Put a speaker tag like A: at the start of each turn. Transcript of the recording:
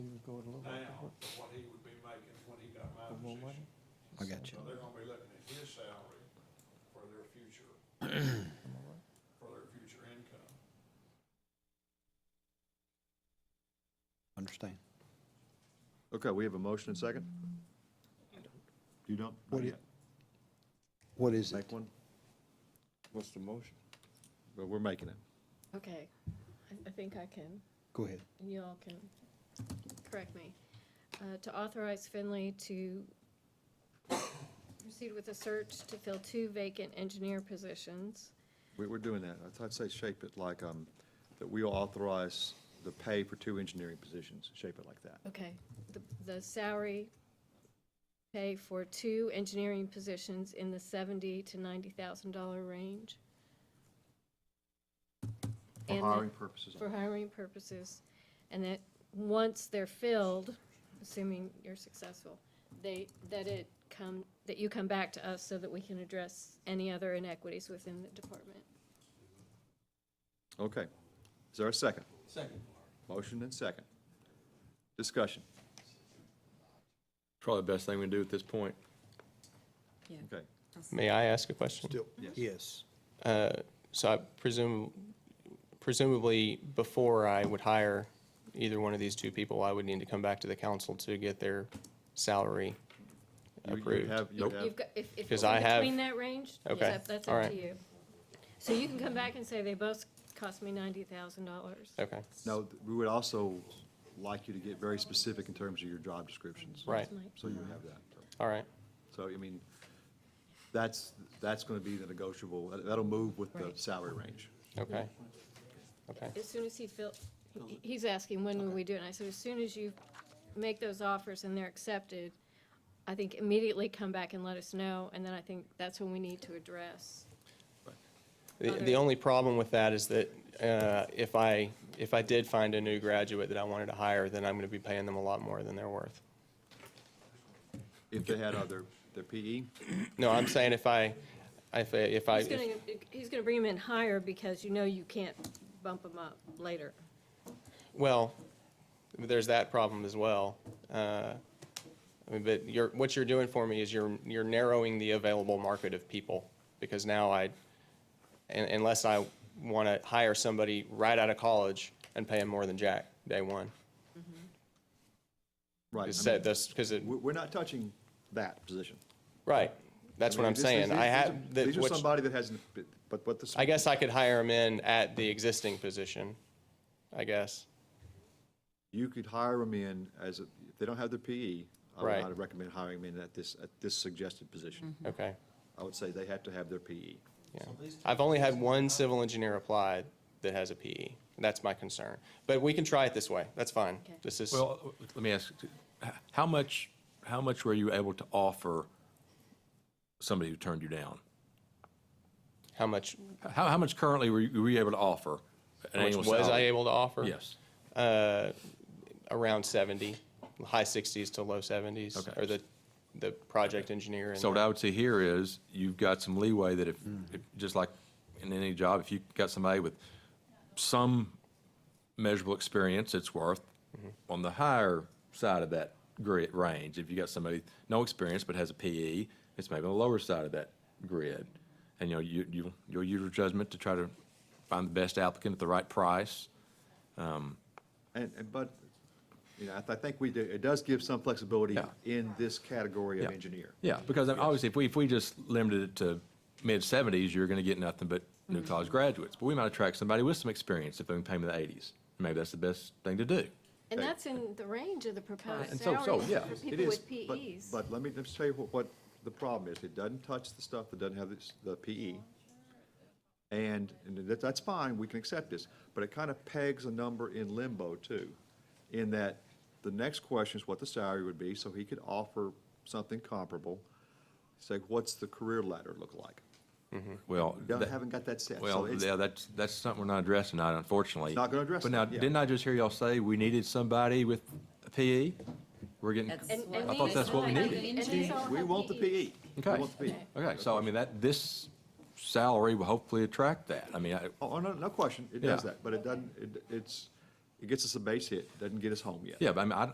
A: for what he would be making when he got my
B: One more
A: position.
C: I got you.
A: So they're gonna be looking at his salary for their future, for their future income.
C: Understand.
D: Okay, we have a motion and second? You don't? Not
C: What do you-
D: yet.
C: What is it?
D: Make one?
B: What's the motion?
D: But we're making it.
E: Okay, I, I think I can,
C: Go ahead.
E: and you all can correct me. Uh, to authorize Finley to proceed with a search to fill two vacant engineer positions.
D: We, we're doing that. I thought I'd say shape it like, um, that we authorize the pay for two engineering positions. Shape it like that.
E: Okay, the, the salary pay for two engineering positions in the seventy to ninety thousand dollar range.
D: For
E: And the-
D: hiring purposes.
E: for hiring purposes, and that once they're filled, assuming you're successful, they, that it come, that you come back to us so that we can address any other inequities within the department.
D: Okay. Is there a second?
A: Second.
D: Motion and second. Discussion.
F: Probably the best thing we can do at this point.
D: Okay.
G: May I ask a question?
C: Yes.
G: So I presume, presumably, before I would hire either one of these two people, I would need to come back to the council to get their salary
D: You- you
G: approved.
D: have- you
F: Nope.
D: have-
E: You've got, if, if it's
G: 'Cause I
E: in
G: have-
E: between that range,
G: Okay,
E: that's that's
G: all
E: up to
G: right.
E: you. So you can come back and say they both cost me ninety thousand dollars.
G: Okay,
D: No, th- we would also like you to get very specific in terms of your job descriptions.
G: Right.
D: So you have that.
G: all right,
D: So, I mean, that's, that's going to be the negotiable, that- that'll move with the
E: Right.
D: salary range.
G: okay, okay,
E: As soon as he fill, he- he's asking, when will we do it? And I said, as soon as you make those offers and they're accepted, I think immediately come back and let us know, and then I think that's when we need to address.
G: The,
E: Other-
G: the only problem with that is that uh, if I, if I did find a new graduate that I wanted to hire, then I'm going to be paying them a lot more than they're worth.
D: If they had other, their E, PE,
G: No, I'm saying if I, if I, if I,
E: He's gonna, he's gonna bring him in higher because you know you can't bump him up later.
G: well, there's that problem as well. Uh, I mean, but you're, what you're doing for me is you're, you're narrowing the available market of people because now I, un- unless I want to hire somebody right out of college and pay them more than Jack day one.
D: right. I
G: Just
D: mean,
G: said this, because it,
D: We're, we're not touching that position.
G: right, that's
D: I
G: what
D: mean,
G: I'm
D: this-
G: saying.
D: these-
G: I
D: these
G: have,
D: are-
G: that
D: These are
G: what-
D: somebody that hasn't, but what the.
G: I guess I could hire them in at the existing position, I guess.
D: You could hire them in as, a- if they don't have their PE, I would
G: Right.
D: not recommend hiring them in at this, at this suggested position.
G: Okay,
D: I would say they have to have their E. PE.
G: yeah. I've only had one civil engineer apply that has a PE. That's my concern. But we can try it this way. That's fine.
E: Okay.
G: This is,
F: Well, let me ask, how much, how much were you able to offer somebody who turned you down?
G: how much,
F: How, how much currently were you, were you able to offer? an
G: how much
F: annual
G: was I
F: salary?
G: able to offer?
F: Yes.
G: Around 70, high 60s to low 70s.
F: Okay.
G: Or the, the project engineer. and
F: So what
G: the-
F: I would say here is, you've got some leeway that if, if- just like in any job, if you got somebody with some measurable experience, it's worth on the higher side of that grid range. If you got somebody, no experience but has a PE, it's maybe on the lower side of that grid. And, you know, you, you, you'll use your judgment to try to find the best applicant at the right price.
D: And, and, but, you know, I th- I think we do, it does give some flexibility
F: Yeah.
D: in this category of
F: Yeah.
D: engineer.
F: Yeah, because I mean, obviously, if we, if we just limited it to mid-seventies, you're gonna get nothing but
D: Mm-hmm.
F: new college graduates. But we might attract somebody with some experience if they can pay them in the eighties. Maybe that's the best thing to do.
E: And
D: Okay.
E: that's in the range of the proposed
F: And so- so,
E: salaries
F: yeah,
E: for
D: It
E: people
D: is,
E: with E
D: but-
E: PEs.
D: But let me, let me tell you what, what the problem is. It doesn't touch the stuff that doesn't have this- the PE. And, and that, that's fine, we can accept this, but it kind of pegs a number in limbo too, in that the next question is what the salary would be, so he could offer something comparable. Say, what's the career ladder look like?
F: Well,
D: Don't,
F: that-
D: haven't got that set. So
F: well,
D: it's-
F: yeah, that's, that's something we're not addressing tonight, unfortunately.
D: It's not gonna address
F: But now,
D: it, yeah.
F: didn't I just hear y'all say we needed somebody with a PE? We're getting,
E: And-
F: okay,
E: and
F: I thought
E: these
F: that's what we
E: all have-
F: needed.
E: and these all
D: We
E: have
D: want the
E: PEs.
D: PE. We want the E. PE.
F: so I mean, that, this salary will hopefully attract that. I mean, I,
D: Oh, no, no question, it does
F: Yeah.
D: that, but it doesn't, it, it's, it gets us a base hit, doesn't get us home yet.
F: yeah, but I mean, I,